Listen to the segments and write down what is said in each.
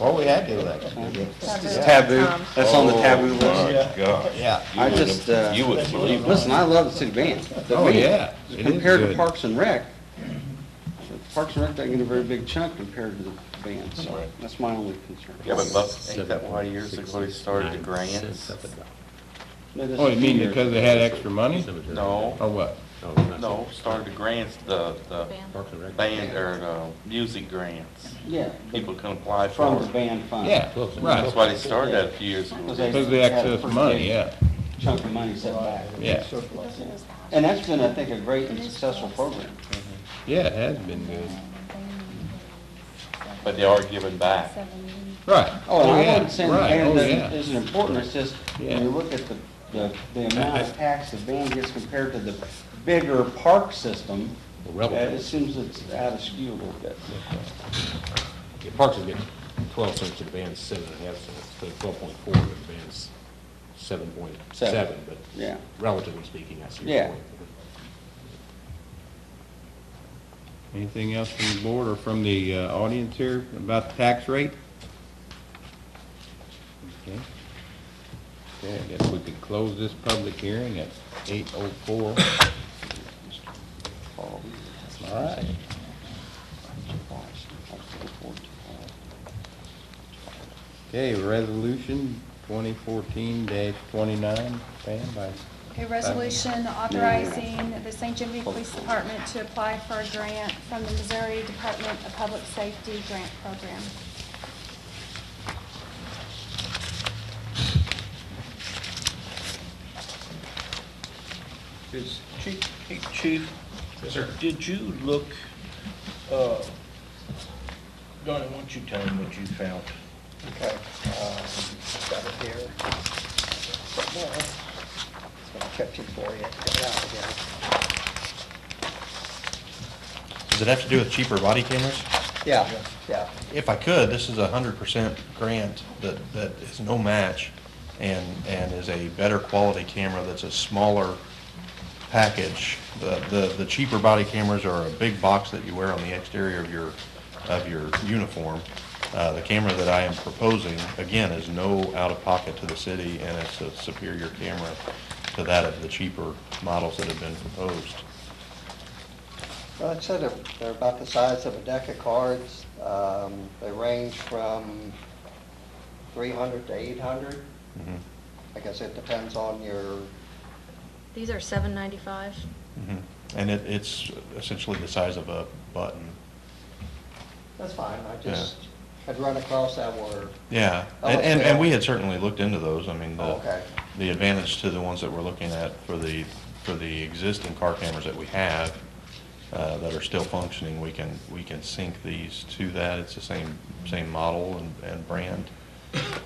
Oh, we had the election, did Taboo, um, that's on the taboo list. Oh, my God. Yeah. You I wouldn't- just, uh, You wouldn't believe it. Listen, I love the city band. The Oh, band, yeah. It is Compared to good. Parks and Rec, Parks and Rec doesn't get a very big chunk compared to the band, so Right. that's my only concern. Yeah, but Buck, ain't that why years ago they started the grants? No, this Oh, is you mean two years. because they had extra money, No, or what? no, started the grants, the, the band, or the music grants. Yeah. but People can apply for From the it. band fund. Yeah, That's right, why they started that a few years ago. because they access money, yeah, Chunk of money set back. yeah, And that's been, I think, a great and successful program. yeah, it has been good, But they are giving back. right. Oh, and I yeah, wasn't saying the right, oh, band yeah. doesn't- isn't important, it's just, Yeah. when you look at the, the, the amount of tax the band gets compared to the bigger park system, uh, it seems it's out of skew a little bit. Yeah, Parks will get twelve cents to the band's seven and a half cents, so twelve point four to the band's seven point seven, but Yeah. relatively speaking, I see Yeah. your point. Anything else from the board or from the uh, audience here about the tax rate? Okay, Okay. I guess we could close this public hearing at eight oh four. All right. Okay, resolution twenty fourteen dash twenty-nine, Pam, by, A resolution authorizing the St. Genevieve Police Department to apply for a grant from the Missouri Department of Public Safety Grant Program. Is, Chief, hey, Chief? Did you look, uh, Donnie, why don't you tell him what you found? Okay, um, got it here. Somewhere. It's gonna catch it for you, get it out again. Does it have to do with cheaper body cameras? Yeah, yeah. If I could, this is a hundred percent grant that, that is no match and, and is a better quality camera that's a smaller package. The, the, the cheaper body cameras are a big box that you wear on the exterior of your, of your uniform. Uh, the camera that I am proposing, again, is no out-of-pocket to the city and it's a superior camera to that of the cheaper models that have been proposed. Well, it said they're- they're about the size of a deck of cards. Um, They range from 300 to 800. Mhm. I guess it depends on your, These are seven ninety-five. Mhm. And it, it's essentially the size of a button. that's fine, I just had run across that word. Yeah, Oh, and, and, okay. and we had certainly looked into those, I mean, Oh, okay. the, the advantage to the ones that we're looking at for the, for the existing car cameras that we have, uh, that are still functioning, we can, we can sync these to that, it's the same, same model and, and brand.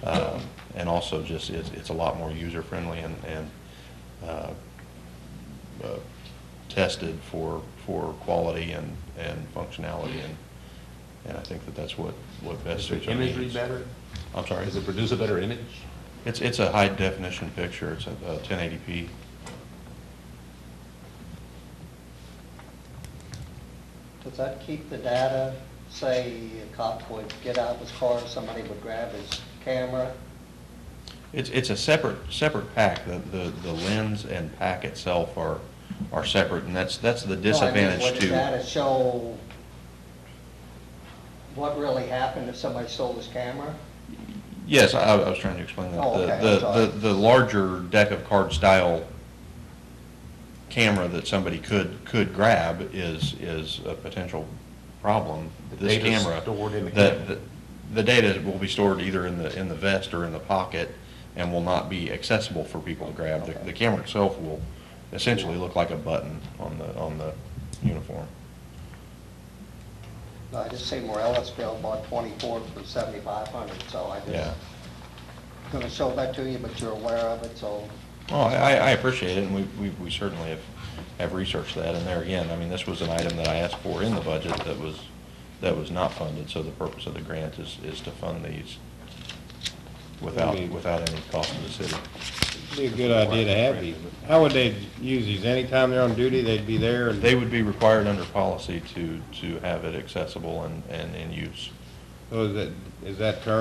Um, And also just, it's, it's a lot more user-friendly and, and, uh, uh, tested for, for quality and, and functionality, and, and I think that that's what, what best Is the suits our imagery needs. better? I'm sorry. Does it produce a better image? It's, it's a high definition picture, it's a a 1080p. Does that keep the data, say a cop would get out of his car, somebody would grab his camera? It's, it's a separate, separate pack, the, the the lens and pack itself are, are separate, and that's, that's No, I the mean, disadvantage Would the to. data show what really happened if somebody stole his camera? Yes, I, I was trying to explain that. Oh, The- okay, I'm the- sorry. The, the larger deck of card style camera that somebody could, could grab is, is a potential problem. The This data's camera. stored in the camera. The, the data will be stored either in the, in the vest or in the pocket and will not be accessible for people to grab. The, the camera itself will essentially look like a button on the, on the uniform. No, I just seen where Ellisville bought twenty-four for seventy-five hundred, so I Yeah. just, gonna show that to you, but you're aware of it, so Well, Oh, I, I I appreciate it, and we, we we certainly have, have researched that, and there again, I mean, this was an item that I asked for in the budget that was, that was not funded, so the purpose of the grant is, is to fund these without, Okay. without any cost to the city. be a good idea to have these. How would they use these? Anytime they're on duty, they'd be there and They would be required under policy to, to have it accessible and, and in use. So is oh, that, is that current